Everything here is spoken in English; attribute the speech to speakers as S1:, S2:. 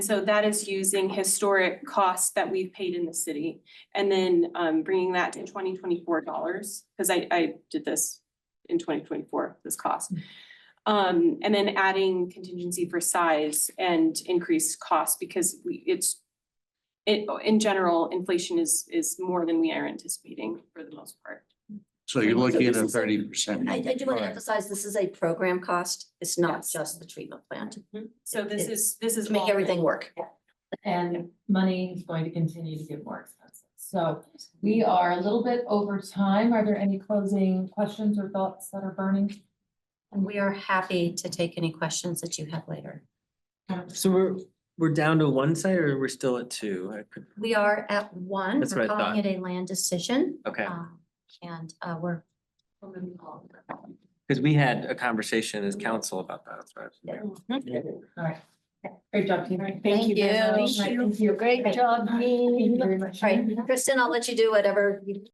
S1: So that is using historic costs that we've paid in the city and then um bringing that to twenty twenty-four dollars. Cause I I did this in twenty twenty-four, this cost.
S2: Mm.
S1: Um, and then adding contingency for size and increased cost because we, it's it, in general, inflation is is more than we are anticipating for the most part.
S3: So you're
S2: So
S3: looking at
S2: this
S3: a
S2: is a-
S3: thirty percent.
S2: I, I do want to
S3: Alright.
S2: emphasize, this is a program cost. It's not
S1: Yes.
S2: just the treatment plant.
S1: So this is, this is.
S2: To make
S1: all in.
S2: everything work.
S4: and money is going to continue to get more expensive. So we are a little bit over time. Are there any closing questions or thoughts that are burning?
S2: And we are happy to take any questions that you have later.
S5: So we're, we're down to one site or we're still at two? I could-
S2: We are at one.
S5: That's
S2: We're
S5: what I
S2: calling It a land decision.
S5: Okay,
S2: um, And uh, we're.
S4: All
S5: because we had a conversation as council about that. so I-
S4: right. Great job, team.
S2: Thank you.
S4: Thank you. Great job. Thank you very much.
S2: Right, Kristen, I'll let you do whatever you